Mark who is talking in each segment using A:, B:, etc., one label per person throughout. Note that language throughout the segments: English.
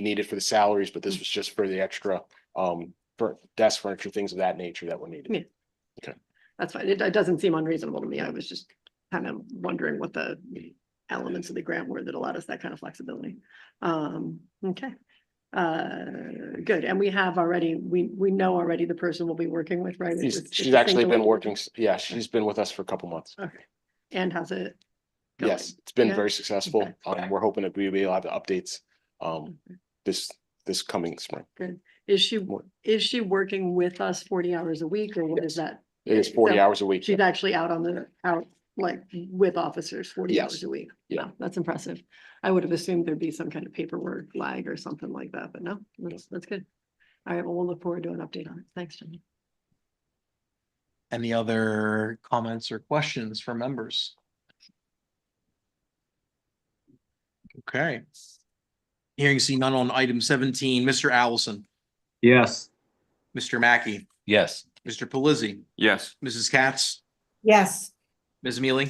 A: needed for the salaries, but this
B: Mm.
A: was just for the extra um for desk furniture, things of that nature that were needed.
B: Yeah. That's fine. It, it doesn't seem unreasonable to me. I was just kind of wondering what the elements of the grant were that allowed us that kind of flexibility. Um, okay. Uh, good. And we have already, we, we know already the person we'll be working with, right?
A: She's
B: It's-
A: she's
B: it's a
A: actually been
B: single-
A: working, s- yeah, she's been with us for a couple months.
B: Okay. And how's it? going?
A: Yes, it's been
B: Yeah.
A: very successful.
B: Okay. Mm-hmm.
A: Um, we're hoping that we'll be able to have updates um this this coming spring.
B: Is she,
A: What?
B: is she working with us forty hours a week or what is that?
A: It is
B: Yeah,
A: forty
B: so
A: hours a week.
B: She's actually out on the, out like with officers forty
A: Yes.
B: hours a week.
A: Yeah.
B: Wow, That's impressive. I would have assumed there'd be some kind of paperwork lag or something like that, but no, that's, that's good. All right, well, we'll look forward to an update on it. Thanks, Jenny.
C: Any other comments or questions from members? Okay. Hearing seen none on item seventeen, Mr. Allison,
D: Yes.
C: Mr. Mackey,
D: Yes.
C: Mr. Pelisi,
D: Yes.
C: Mrs. Katz,
E: Yes,
C: Ms. Mealy,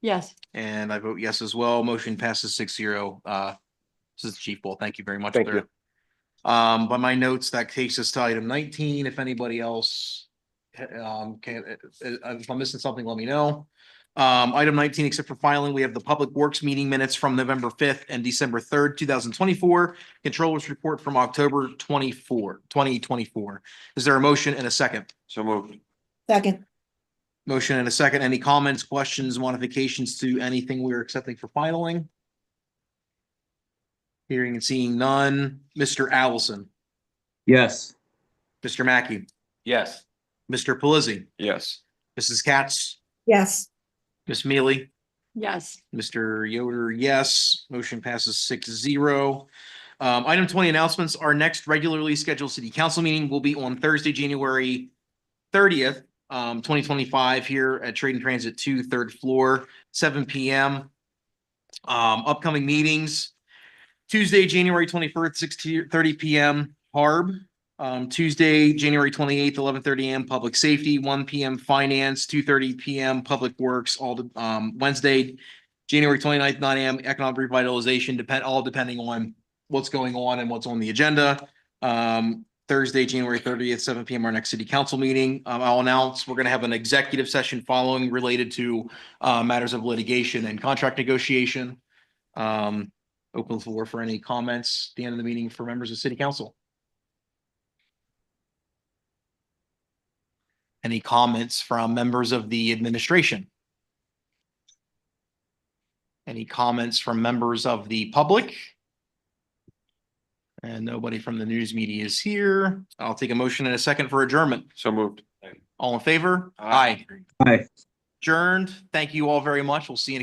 B: Yes,
C: and I vote yes as well. Motion passes six zero. Uh, this is Chief Bull. Thank you very much.
A: Thank
C: sir. Um, by my notes, that takes us to item nineteen. If anybody else um, can, uh, uh, if I'm missing something, let me know. Um, item nineteen, except for filing, we have the Public Works meeting minutes from November fifth and December third, two thousand twenty-four. Controllers report from October 24, 2024. Is there a motion and a second?
D: So moved.
E: second,
C: Motion and a second. Any comments, questions, modifications to anything we're accepting for filing? Hearing and seeing none. Mr. Allison,
D: Yes.
C: Mr. Mackey,
D: Yes.
C: Mr. Pelisi,
D: Yes.
C: Mrs. Katz,
E: yes,
C: Ms. Mealy,
B: yes,
C: Mr. Yoder, yes. Motion passes six zero. Um, item twenty announcements. Our next regularly scheduled city council meeting will be on Thursday, January thirtieth, um, twenty twenty-five here at Trade and Transit two, third floor, seven P M. Um, upcoming meetings, Tuesday, January twenty-first, six to thirty P M, Harb. Um, Tuesday, January twenty-eighth, eleven thirty AM, Public Safety, one P M, Finance, two thirty P M, Public Works, all the, um, Wednesday, January 29th, nine AM, economic revitalization, depend, all depending on what's going on and what's on the agenda. Um, Thursday, January thirtieth, seven PM, our next city council meeting. Um, I'll announce, we're gonna have an executive session following related to uh, matters of litigation and contract negotiation. Um, open the floor for any comments, at the end of the meeting for members of city council. Any comments from members of the administration? Any comments from members of the public? And nobody from the news media is here. I'll take a motion in a second for adjournment.
D: So moved.
C: All in favor?
D: Aye.
C: Adjourned. Thank you all very much. We'll see you. in-